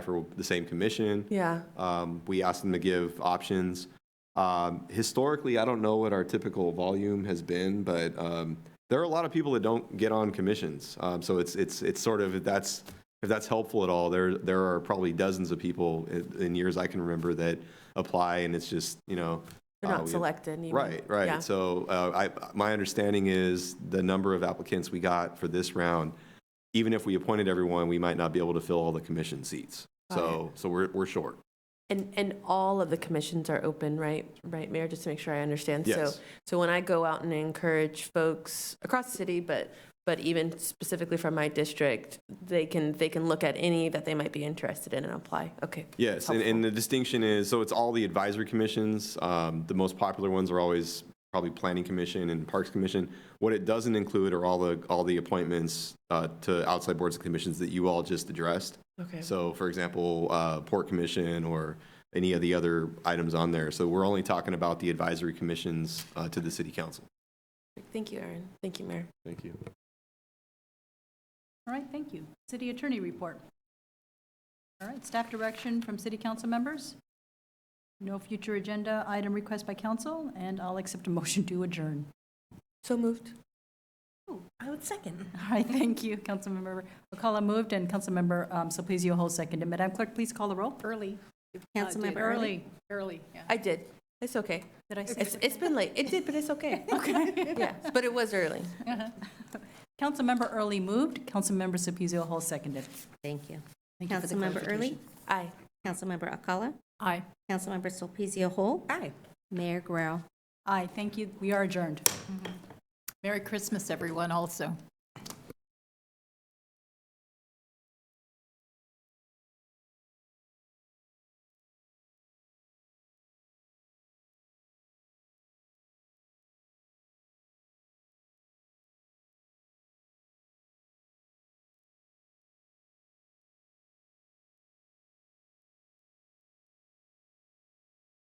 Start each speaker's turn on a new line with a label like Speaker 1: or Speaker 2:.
Speaker 1: for the same commission.
Speaker 2: Yeah,
Speaker 1: Um, We asked them to give options. Um, Historically, I don't know what our typical volume has been, but um, there are a lot of people that don't get on commissions. Um, So it's, it's, it's sort of, if that's, if that's helpful at all, there, there are probably dozens of people in- in years I can remember that apply, and it's just, you know.
Speaker 2: they're
Speaker 1: uh,
Speaker 2: not
Speaker 1: we-
Speaker 2: selected. you mean.
Speaker 1: Right,
Speaker 2: Yeah.
Speaker 1: right. So uh, I, my understanding is the number of applicants we got for this round, even if we appointed everyone, we might not be able to fill all the commission seats.
Speaker 2: Got it.
Speaker 1: So, so we're, we're short.
Speaker 2: And, and all of the commissions are open, right? Right, Mayor, just to make sure I understand. So,
Speaker 1: Yes.
Speaker 2: so when I go out and encourage folks across the city, but, but even specifically from my district, they can, they can look at any that they might be interested in and apply. Okay.
Speaker 1: Yes, and,
Speaker 2: Helpful.
Speaker 1: and the distinction is, so it's all the advisory commissions. Um, the most popular ones are always probably Planning Commission and Parks Commission. What it doesn't include are all the, all the appointments uh, to outside boards and commissions that you all just addressed.
Speaker 2: Okay.
Speaker 1: So, for example, uh, Port Commission or any of the other items on there. So we're only talking about the advisory commissions uh, to the city council.
Speaker 2: Thank you, Erin. Thank you, Mayor.
Speaker 1: Thank you.
Speaker 3: All right, thank you. City Attorney Report. All right, staff direction from city council members. No future agenda item request by council, and I'll accept a motion to adjourn.
Speaker 2: So moved.
Speaker 3: I would second. All right, thank you, Councilmember McCullough moved, and Councilmember um, Soplizio Hall seconded. Madam Clerk, please call the roll. Early.
Speaker 4: Councilmember Uh,
Speaker 3: Early.
Speaker 4: Early.
Speaker 3: Early, yeah.
Speaker 2: I did. It's okay.
Speaker 3: Did I say?
Speaker 2: It's, it's been late. It did, but it's okay.
Speaker 3: Okay.
Speaker 2: Yeah, but it was early.
Speaker 3: Councilmember Uh-huh. Early moved, Councilmember Soplizio Hall seconded.
Speaker 4: Thank you.
Speaker 3: Thank you for the
Speaker 4: Councilmember Early,
Speaker 3: clarification.
Speaker 2: Aye.
Speaker 4: Councilmember Alcala,
Speaker 3: Aye.
Speaker 4: Councilmember Solpezio Hall,
Speaker 2: Aye.
Speaker 4: Mayor Guerrero.
Speaker 3: Aye, thank you. We are adjourned.
Speaker 5: Merry Christmas, everyone, also.